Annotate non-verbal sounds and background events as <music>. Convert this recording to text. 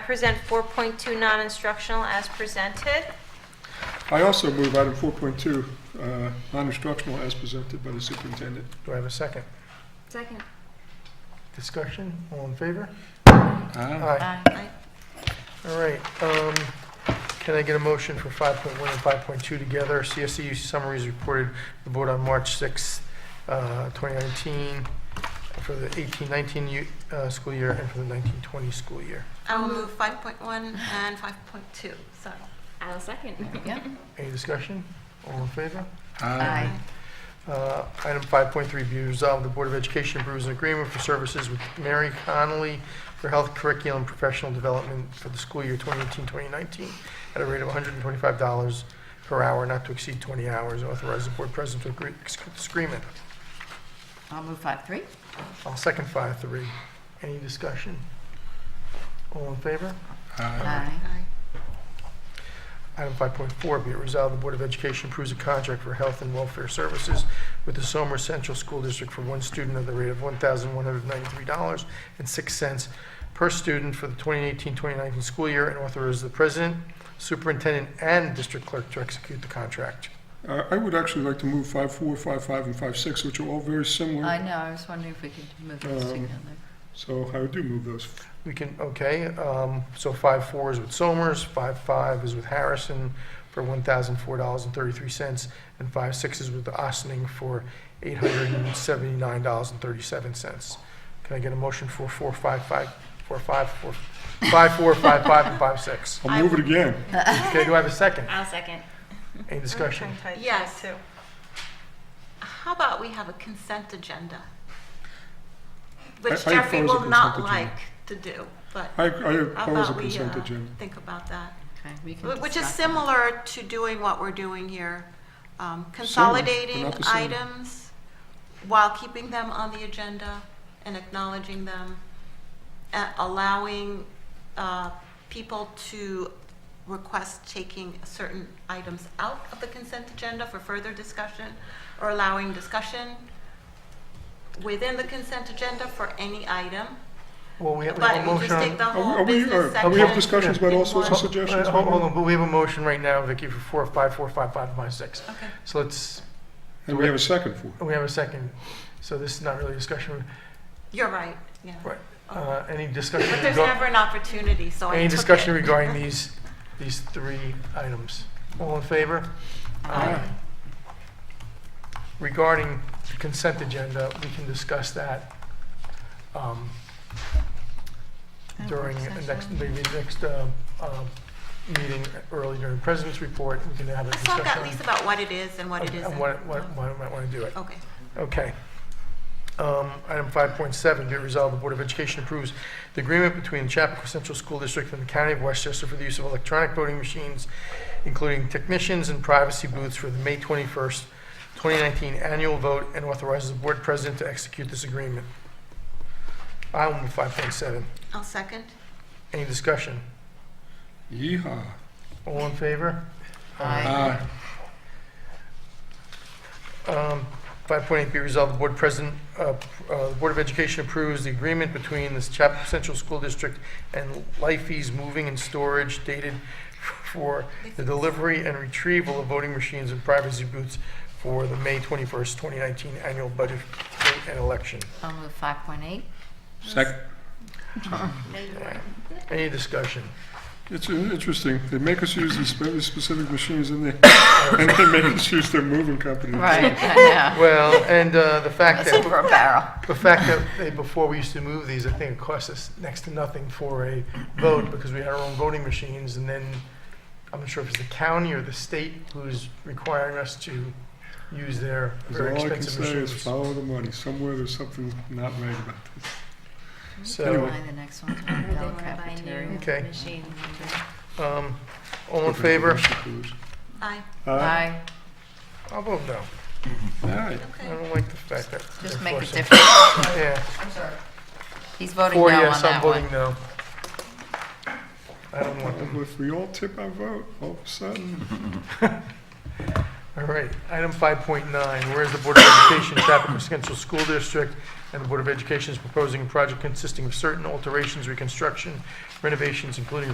present 4.2 non-instructional as presented. I also move item 4.2, uh, non-instructional as presented by the superintendent. Do I have a second? Second. Discussion, all in favor? Aye. Aye. All right, um, can I get a motion for 5.1 and 5.2 together? CSEU summaries reported to the board on March 6th, uh, 2019, for the 18-19 u- uh, school year and for the 19-20 school year. I'll move 5.1 and 5.2, sorry. I'll second. Any discussion? All in favor? Uh, Item 5.3, be resolved, the Board of Education approves an agreement for services with Mary Connolly for health curriculum professional development for the school year 2018-2019 at a rate of $125 per hour, not to exceed 20 hours. Authorize the Board President to agree to this agreement. I'll move five three. I'll second 5.3. Any discussion? All in favor? Aye. Aye. Item 5.4, be it resolved, the Board of Education approves a contract for health and welfare services with the Somer Central School District for one student at the rate of $1,193.06 per student for the 2018-2019 school year, and authorizes the president, superintendent, and district clerk to execute the contract. Uh, I would actually like to move 5.4, 5.5, and 5.6, which are all very I similar, know, I was wondering if we could move those Um, together. so I do move those. We can, okay, um, so 5.4 is with Somers, 5.5 is with Harrison for $1,004.33, and 5.6 is with Ossining for $879.37. Can I get a motion for 4.55, 4.5, 5.4, 5.5, and 5.6? I'll move it again. Okay, do I have a second? I'll second. Any discussion? Yes. How about we have a consent agenda? Which I- I Jeffrey oppose a will not consent agenda. like to do, but I I how oppose a about we consent uh, agenda. think about that? Okay, we can Wh- Which is discuss. similar to doing what we're doing here, um, consolidating not the same. items while keeping them on the agenda and acknowledging them, a- allowing uh, people to request taking certain items out of the consent agenda for further discussion, or allowing discussion within the consent agenda for any item. Well, we have we But have a you just motion take the on... Oh, Are we- whole are we- uh, business are- are we have section discussions about in all sorts of one- sub- suggestions, uh, Hold hold Barbara? on, but we have a motion right now, Vicky, for 4.5, 4.5, 5.6. Okay. So let's, And we have a second for it. we have a second, so this is not really a discussion. You're right, yeah. Right. Uh, Any discussion? But there's rego- never an opportunity, so I Any took discussion it. regarding these, these three items? All in favor? Aye. Regarding the consent agenda, we can discuss that um, At during work the next, session. maybe next uh, uh, meeting, early during president's report, we can have a Let's discussion. talk at least about what it is and what it on- isn't. on what- what- why we might want to do it. Okay. Okay. Um, Item 5.7, be it resolved, the Board of Education approves the agreement between the Chapakua Central School District and the County of Westchester for the use of electronic voting machines, including technicians and privacy booths for the May 21st, 2019 annual vote, and authorizes the Board President to execute this agreement. I will move 5.7. I'll second. Any discussion? Yeehaw. All in favor? Aye. Aye. Um, 5.8 be resolved, the Board President, uh, uh, the Board of Education approves the agreement between the Chapel Central School District and Lifeys Moving and Storage dated for the delivery and retrieval of voting machines and privacy booths for the May 21st, 2019 annual budget vote and election. I'll move five point eight. Second. Any discussion? It's uh, interesting. They make us use these very specific machines and they, <coughs> and they make us use their moving company. Right, I know. Well, and uh, the fact It's that... over a barrel. The fact that they, before we used to move these, I think it cost us next to nothing for a vote because we had our own voting machines. And then I'm not sure if it's the county or the state who's requiring us to use their Because very all I can expensive say is machines. follow the money. Somewhere there's something not right about this. So, Buy the next one, Bell Cafeteria. Okay. Machine. um, all in favor? Aye. Aye. Aye, I'll vote no. Aye. I Okay. don't like the fact that. just they're make a forcing- difference. Yeah, He's voting no four on yes, I'm that one. voting no. I don't want them. Well, If we all tip our vote, all of a sudden, All right, item 5.9, whereas the Board of Education, Chapel Central School District, and the Board of Education is proposing a project consisting of certain alterations, reconstruction, renovations, including